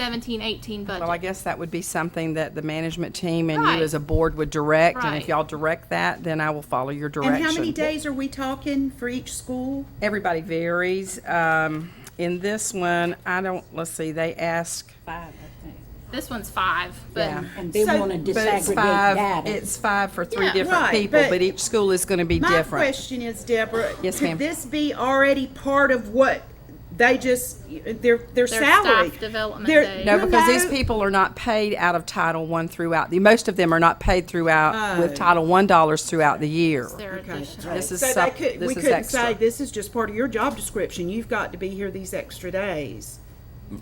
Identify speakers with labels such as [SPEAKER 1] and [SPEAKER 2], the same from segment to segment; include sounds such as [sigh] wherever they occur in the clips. [SPEAKER 1] 17, 18 budget.
[SPEAKER 2] Well, I guess that would be something that the management team and
[SPEAKER 1] Right.
[SPEAKER 2] you as a board would direct. And
[SPEAKER 1] Right.
[SPEAKER 2] if y'all direct that, then I will follow your direction.
[SPEAKER 3] And how many days are we talking for each school?
[SPEAKER 2] Everybody varies. Um, in this one, I don't, let's see, they ask,
[SPEAKER 4] five, I think.
[SPEAKER 1] This one's five,
[SPEAKER 2] yeah.
[SPEAKER 1] but
[SPEAKER 4] And they
[SPEAKER 3] So-
[SPEAKER 4] want to
[SPEAKER 2] But it's
[SPEAKER 4] disaggregate
[SPEAKER 2] five,
[SPEAKER 4] data.
[SPEAKER 2] it's five for three
[SPEAKER 1] Yeah,
[SPEAKER 2] different
[SPEAKER 3] right,
[SPEAKER 2] people,
[SPEAKER 3] but-
[SPEAKER 2] but each school is gonna be
[SPEAKER 3] My
[SPEAKER 2] different.
[SPEAKER 3] question is, Deborah.
[SPEAKER 2] Yes, ma'am.
[SPEAKER 3] Could this be already part of what they just, their, their
[SPEAKER 1] staff
[SPEAKER 3] salary?
[SPEAKER 1] development
[SPEAKER 3] Their-
[SPEAKER 1] day.
[SPEAKER 2] No,
[SPEAKER 3] you
[SPEAKER 2] because these
[SPEAKER 3] know-
[SPEAKER 2] people are not paid out of Title One throughout, the most of them are not paid throughout, with Title One dollars throughout the year.
[SPEAKER 1] their addition.
[SPEAKER 2] This is,
[SPEAKER 3] Oh. So they
[SPEAKER 2] sup-
[SPEAKER 3] could,
[SPEAKER 2] this
[SPEAKER 3] we
[SPEAKER 2] is
[SPEAKER 3] couldn't say,
[SPEAKER 2] extra.
[SPEAKER 3] this is just part of your job description. You've got to be here these extra days.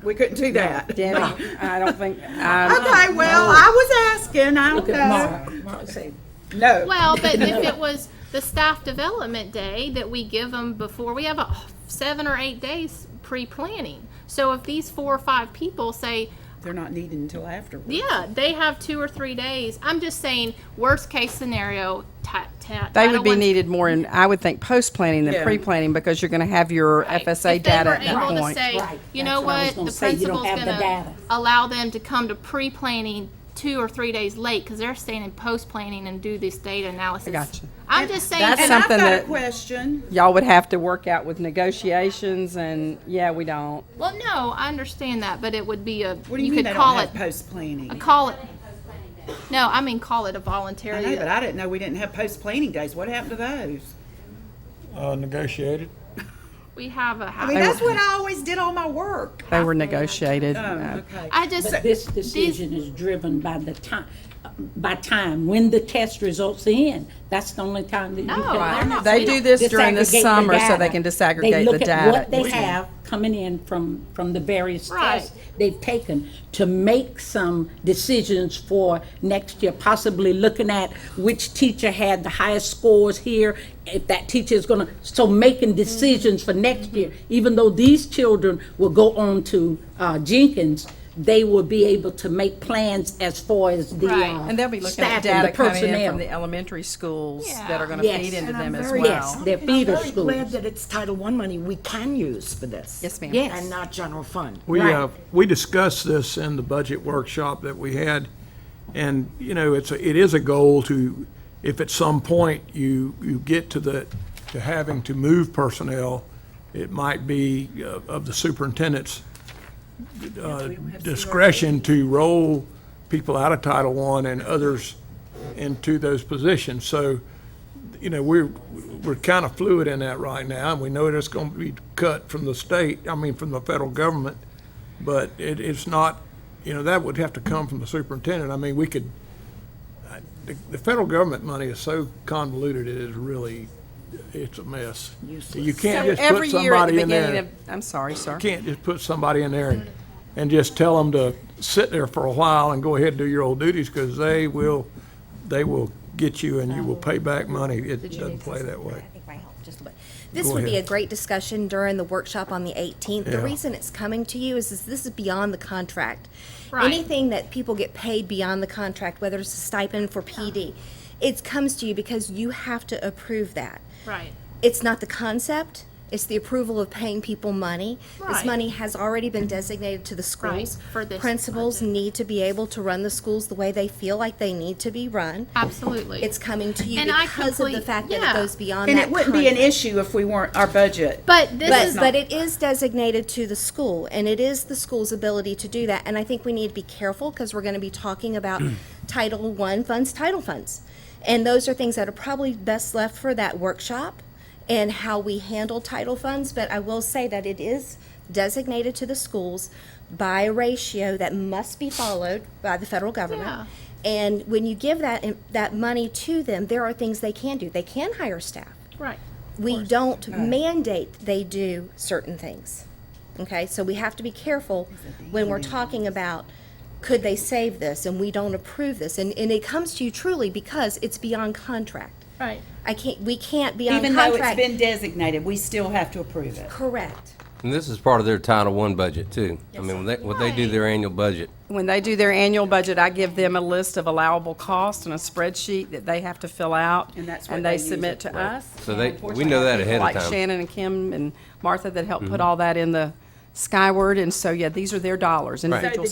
[SPEAKER 3] We couldn't do that. Okay, [laughs]
[SPEAKER 2] Debbie, I don't think, I,
[SPEAKER 3] well, I was asking, I don't
[SPEAKER 4] Look at
[SPEAKER 3] know.
[SPEAKER 4] Mark. Mark said,
[SPEAKER 3] No.
[SPEAKER 1] Well, but if it was the staff development day that we give them before, we have a seven or eight days pre-planning. So if these four or five people say,
[SPEAKER 3] They're not needed until afterwards.
[SPEAKER 1] yeah, they have two or three days, I'm just saying, worst case scenario, ti- ti-
[SPEAKER 2] they
[SPEAKER 1] Title
[SPEAKER 2] would be
[SPEAKER 1] I's-
[SPEAKER 2] needed more in, I would think, post-planning
[SPEAKER 3] Yeah.
[SPEAKER 2] than pre-planning, because you're gonna have your
[SPEAKER 1] Right.
[SPEAKER 2] FSA
[SPEAKER 1] If they
[SPEAKER 2] data
[SPEAKER 1] were
[SPEAKER 2] at that
[SPEAKER 1] able to
[SPEAKER 2] point.
[SPEAKER 1] say,
[SPEAKER 4] Right.
[SPEAKER 1] You
[SPEAKER 4] That's
[SPEAKER 1] know
[SPEAKER 4] what I was
[SPEAKER 1] what,
[SPEAKER 4] gonna
[SPEAKER 1] the
[SPEAKER 4] say. You don't
[SPEAKER 1] principal's
[SPEAKER 4] have the
[SPEAKER 1] gonna
[SPEAKER 4] data.
[SPEAKER 1] allow them to come to pre-planning two or three days late, because they're staying in post-planning and do this data analysis.
[SPEAKER 2] gotcha.
[SPEAKER 1] I'm just saying,
[SPEAKER 2] That's
[SPEAKER 3] And I've
[SPEAKER 2] something
[SPEAKER 3] got a
[SPEAKER 2] that-
[SPEAKER 3] question.
[SPEAKER 2] Y'all would have to work out with negotiations, and, yeah, we don't.
[SPEAKER 1] well, no, I understand that, but it would be a,
[SPEAKER 3] What do you
[SPEAKER 1] you
[SPEAKER 3] mean
[SPEAKER 1] could
[SPEAKER 3] they don't
[SPEAKER 1] call it,
[SPEAKER 3] have post-planning?
[SPEAKER 1] call it. No, I mean, call it a
[SPEAKER 3] I know,
[SPEAKER 1] voluntary,
[SPEAKER 3] but I didn't know we didn't have post-planning days. What happened to those?
[SPEAKER 5] uh, negotiated.
[SPEAKER 1] we have a.
[SPEAKER 3] I mean, that's when I always did all my work.
[SPEAKER 2] They were negotiated. uh,
[SPEAKER 3] okay.
[SPEAKER 1] I just,
[SPEAKER 4] But this decision is driven by the time, by time, when the test results are in. That's the only time that you
[SPEAKER 1] No,
[SPEAKER 4] can.
[SPEAKER 1] they're not-
[SPEAKER 2] They do this during the
[SPEAKER 4] disaggregate the
[SPEAKER 2] summer so they
[SPEAKER 4] data.
[SPEAKER 2] can disaggregate
[SPEAKER 4] They look
[SPEAKER 2] the
[SPEAKER 4] at What
[SPEAKER 2] data.
[SPEAKER 4] they have coming in from, from the various
[SPEAKER 1] Right.
[SPEAKER 4] tests they've taken to make some decisions for next year, possibly looking at which teacher had the highest scores here, if that teacher is gonna, so making decisions for
[SPEAKER 6] Mm-hmm.
[SPEAKER 4] next year, even though these children will go on to uh, Jenkins, they will be able to make plans as far as the
[SPEAKER 1] Right.
[SPEAKER 4] uh,
[SPEAKER 2] And they'll be looking at
[SPEAKER 4] staff and
[SPEAKER 2] data
[SPEAKER 4] the
[SPEAKER 2] coming in
[SPEAKER 4] personnel.
[SPEAKER 2] from the elementary schools that
[SPEAKER 1] Yeah.
[SPEAKER 2] are gonna
[SPEAKER 4] Yes.
[SPEAKER 2] feed into
[SPEAKER 6] And I'm
[SPEAKER 2] them as
[SPEAKER 6] very-
[SPEAKER 4] Yes,
[SPEAKER 2] well.
[SPEAKER 4] they're feeder
[SPEAKER 6] I'm very glad
[SPEAKER 4] schools.
[SPEAKER 6] that it's Title I money we can use for this.
[SPEAKER 2] Yes, ma'am.
[SPEAKER 4] Yes.
[SPEAKER 6] And not general fund.
[SPEAKER 5] We,
[SPEAKER 4] Right.
[SPEAKER 5] uh, we discussed this in the budget workshop that we had, and, you know, it's, a- it is a goal to, if at some point you, you get to the, to having to move personnel, it might be uh, of the superintendent's uh, discretion to roll people out of Title I and others into those positions. So, you know, we're, we're kind of fluid in that right now, and we know it's going to be cut from the state, I mean, from the federal government, but it, it's not, you know, that would have to come from the superintendent. I mean, we could, I- the, the federal government money is so convoluted, it is really, it's a mess. You can't
[SPEAKER 2] So
[SPEAKER 5] just put
[SPEAKER 2] every year at the
[SPEAKER 5] somebody in
[SPEAKER 2] beginning of,
[SPEAKER 5] there.
[SPEAKER 2] I'm sorry, sir.
[SPEAKER 5] You can't just put somebody in there and, and just tell them to sit there for a while and go ahead and do your old duties, because they will, they will get you and you will pay back money. It doesn't play that way.
[SPEAKER 7] I think my help just a bit. This
[SPEAKER 5] Go
[SPEAKER 7] would be a
[SPEAKER 5] ahead.
[SPEAKER 7] great discussion during the workshop on the 18th. The
[SPEAKER 5] Yeah.
[SPEAKER 7] reason it's coming to you is, is this is beyond the contract.
[SPEAKER 1] Right.
[SPEAKER 7] Anything that people get paid beyond the contract, whether it's a stipend for PD, it comes to you because you have to approve that.
[SPEAKER 1] right.
[SPEAKER 7] It's not the concept. It's the approval of paying people money. This
[SPEAKER 1] Right.
[SPEAKER 7] money has already been designated to the schools.
[SPEAKER 1] for this
[SPEAKER 7] Principals
[SPEAKER 1] budget.
[SPEAKER 7] need to be able to run the schools the way they feel like they need to be run.
[SPEAKER 1] Absolutely.
[SPEAKER 7] It's coming to you
[SPEAKER 1] And I
[SPEAKER 7] because of the
[SPEAKER 1] complete-
[SPEAKER 7] fact that
[SPEAKER 1] yeah.
[SPEAKER 7] it goes beyond
[SPEAKER 3] And
[SPEAKER 7] that
[SPEAKER 3] it wouldn't be an
[SPEAKER 7] contract.
[SPEAKER 3] issue if we weren't, our budget.
[SPEAKER 1] But this
[SPEAKER 7] But,
[SPEAKER 1] is,
[SPEAKER 7] but it is designated to the school, and it is the school's ability to do that. And I think we need to be careful because we're going to be
[SPEAKER 1] [clears throat]
[SPEAKER 7] talking about Title I funds, title funds. And those are things that are probably best left for that workshop and how we handle title funds. But I will say that it is designated to the schools by a ratio that must be followed by the federal
[SPEAKER 1] Yeah.
[SPEAKER 7] government. And when you give that, that money to them, there are things they can do. They can hire staff
[SPEAKER 1] right.
[SPEAKER 7] we don't mandate they do certain things. Okay, so we have to be careful when we're talking about, could they save this, and we don't approve this, and, and it comes to you truly because it's beyond contract.
[SPEAKER 1] Right.
[SPEAKER 7] I can't, we can't be on
[SPEAKER 3] Even though it's
[SPEAKER 7] contract.
[SPEAKER 3] been designated, we still have to approve it.
[SPEAKER 7] Correct.
[SPEAKER 8] And this is part of their Title One budget too. I mean, when they, when they do their annual budget,
[SPEAKER 2] When they do their annual budget, I give them a list of allowable costs and a spreadsheet that they have to fill out.
[SPEAKER 3] And that's what
[SPEAKER 2] they
[SPEAKER 3] they use
[SPEAKER 2] submit
[SPEAKER 3] it
[SPEAKER 2] to us.
[SPEAKER 8] So they-
[SPEAKER 2] And
[SPEAKER 8] we know that ahead of
[SPEAKER 2] Like
[SPEAKER 8] time. Mm-hmm.
[SPEAKER 2] Shannon and Kim and Martha that help put all that in the Skyward, and so, yeah, these are their dollars, individual